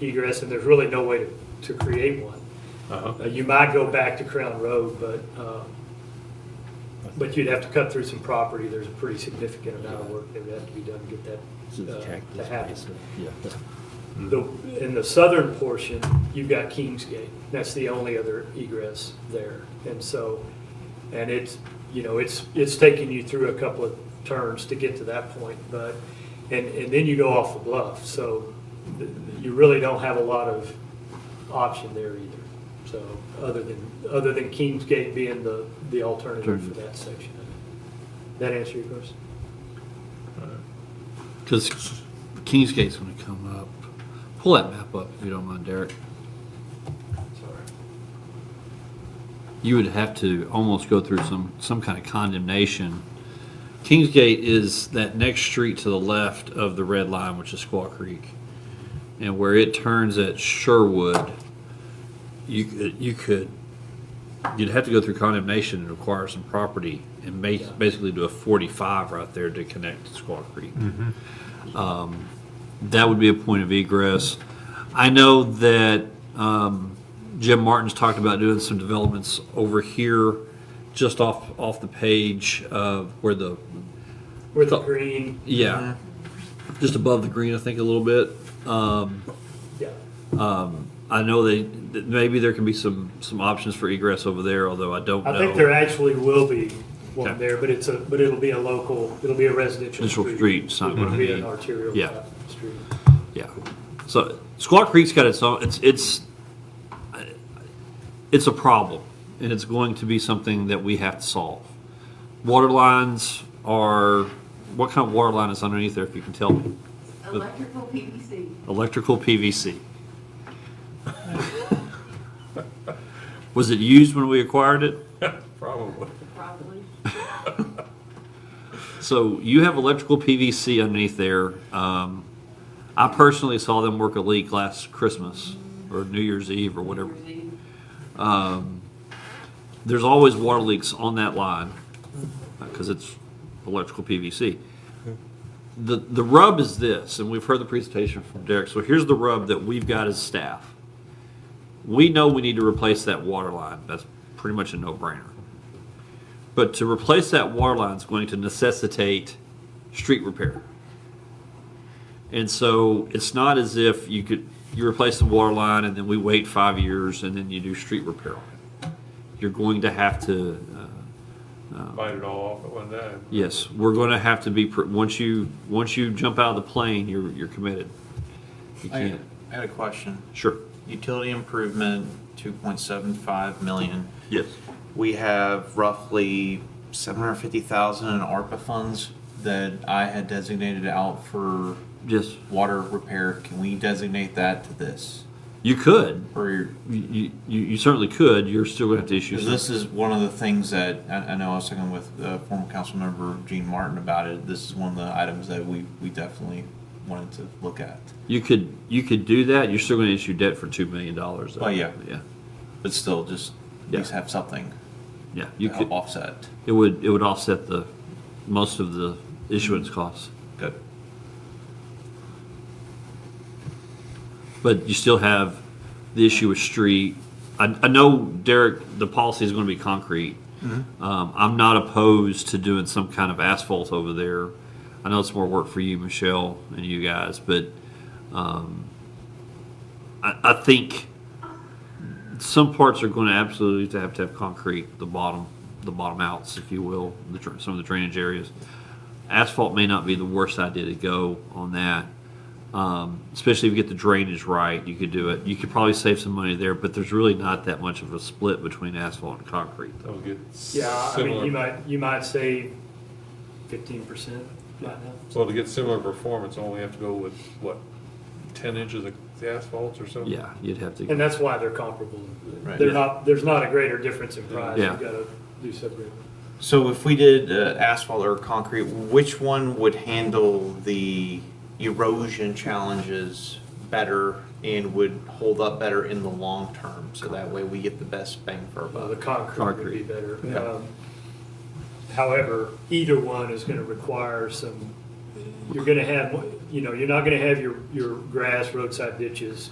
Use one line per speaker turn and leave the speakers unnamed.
egress, and there's really no way to, to create one.
Uh-huh.
Uh, You might go back to Crown Road, but, um, but you'd have to cut through some property. There's a pretty significant amount of work that would have to be done to get that uh, to happen.
Yeah.
The, in the southern portion, you've got Kingsgate. That's the only other egress there. And so, and it's, you know, it's, it's taking you through a couple of turns to get to that point, but, and, and then you go off the bluff. So th- you really don't have a lot of option there either. So, other than, other than Kingsgate being the, the alternative for that section. of it. That answer your question?
Because Kingsgate's going to come up. Pull that map up if you don't mind, Derek.
Sorry.
You would have to almost go through some, some kind of condemnation. Kingsgate is that next street to the left of the red line, which is Squaw Creek. And where it turns at Sherwood, you, could- you could, you'd have to go through condemnation and acquire some property and ma- basically do a 45 right there to connect to Squaw Creek. that would be a point of egress. I know that um, Jim Martin's talked about doing some developments over here, just off, off the page of where the,
Where the
So-
green,
yeah, just above the green, I think, a little bit.
yeah,
I know they, that maybe there can be some, some options for egress over there, although I don't know.
I think there actually will be one
Okay.
there, but it's a, but it'll be a local, it'll be a residential
Residential
street.
street, it's not
It
gonna
won't be
be-
an arterial
yeah.
type street.
Yeah. So Squaw Creek's got its own, it's, it's, it's a problem and it's going to be something that we have to solve. Water lines are, what kind of water line is underneath there if you can tell me?
Electrical PVC.
Electrical PVC. Was it used when we acquired it?
Probably.
Probably.
So you have electrical PVC underneath there. Um, I personally saw them work a leak last Christmas or New Year's Eve or whatever. there's always water leaks on that line because it's electrical PVC. The, the rub is this, and we've heard the presentation from Derek, so here's the rub that we've got as staff. We know we need to replace that water line, that's pretty much a no-brainer. But to replace that water line is going to necessitate street repair. And so it's not as if you could, you replace the water line and then we wait five years and then you do street repair on it you're going to have to, uh,
Bite it all off at one time.
yes, we're going to have to be, pr- once you, once you jump out of the plane, you're, you're committed. You
I
can't,
I had a question.
sure.
Utility improvement, 2.75 million.
Yes.
We have roughly 750,000 in ARPA funds that I had designated out for
Yes,
water repair. Can we designate that to this?
you could,
Or,
you, you, you certainly could, you're still going to have to issue.
because
some-
this is one of the things that, I I know I was talking with uh, former council member Gene Martin about it. This is one of the items that we, we definitely wanted to look at.
You could, you could do that, you're still going to issue debt for $2 million. though.
Oh, yeah.
Yeah,
But still, just at
Yeah.
least have something
yeah,
to
you
help
could,
offset.
it would, it would offset the, most of the issuance costs.
Good.
But you still have the issue with street. I, I know, Derek, the policy is going to be concrete. Um, I'm not opposed to doing some kind of asphalt over there. I know it's more work for you, Michelle, and you guys, but um, I, I think some parts are going to absolutely to have to have concrete. The bottom, the bottom outs, if you will, the, dr- some of the drainage areas. Asphalt may not be the worst idea to go on that um, especially if you get the drainage right, you could do it. You could probably save some money there, but there's really not that much of a split between asphalt and concrete.
That was good.
Yeah, I mean,
Similar-
you might, you might say fifteen percent right now.
So to get similar performance, I only have to go with, what, ten inches of asphalt or something?
Yeah, you'd have
And
to.
that's why they're comparable.
Right.
They're
Yeah.
not, there's not a greater difference in price. You
Yeah.
gotta do separate.
So if we did uh, asphalt or concrete, which one would handle the erosion challenges better and would hold up better in the long term? So that way we get the best bang for our
Uh,
buck.
The concrete would be
Concrete.
better.
Yeah.
Um, However, either one is gonna require some, you're gonna have, you know, you're not gonna have your, your grass roadside ditches